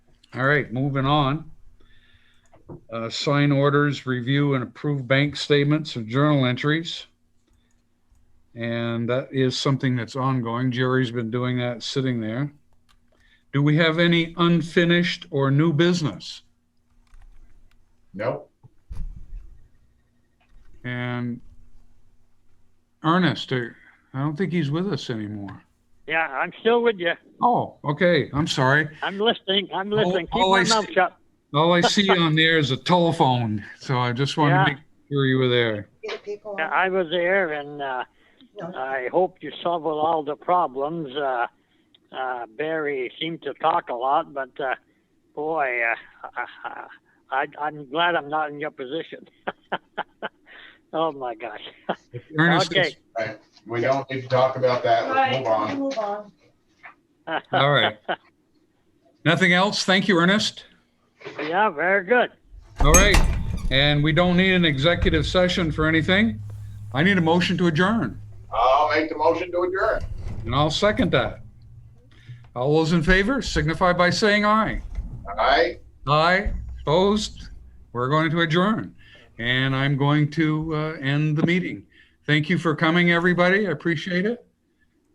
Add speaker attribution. Speaker 1: All right, moving on. Uh, sign orders, review and approve bank statements and journal entries. And that is something that's ongoing. Jerry's been doing that, sitting there. Do we have any unfinished or new business?
Speaker 2: Nope.
Speaker 1: And Ernest, uh, I don't think he's with us anymore.
Speaker 3: Yeah, I'm still with you.
Speaker 1: Oh, okay, I'm sorry.
Speaker 3: I'm listening. I'm listening. Keep
Speaker 1: oh, I
Speaker 3: my
Speaker 1: see.
Speaker 3: mouth shut.
Speaker 1: All I see on there is a telephone, so I just wanted to
Speaker 3: Yeah.
Speaker 1: make sure you were there.
Speaker 4: Get people
Speaker 3: Yeah,
Speaker 4: on.
Speaker 3: I was there, and uh,
Speaker 4: No,
Speaker 3: I hope you solve all the problems. Uh, uh, Barry seemed to talk a lot, but uh, boy, uh, I, I, I'm glad I'm not in your position. oh my gosh.
Speaker 1: Ernest,
Speaker 3: Okay.
Speaker 2: Right. We don't need to talk about that. Let's
Speaker 4: Right,
Speaker 2: move on.
Speaker 4: move on.
Speaker 1: all right. Nothing else? Thank you, Ernest.
Speaker 3: Yeah, very good.
Speaker 1: All right, and we don't need an executive session for anything. I need a motion to adjourn,
Speaker 2: I'll make the motion to adjourn.
Speaker 1: and I'll second that. All those in favor signify by saying aye.
Speaker 2: All right.
Speaker 1: Aye, opposed, we're going to adjourn. And I'm going to uh, end the meeting. Thank you for coming, everybody. I appreciate it.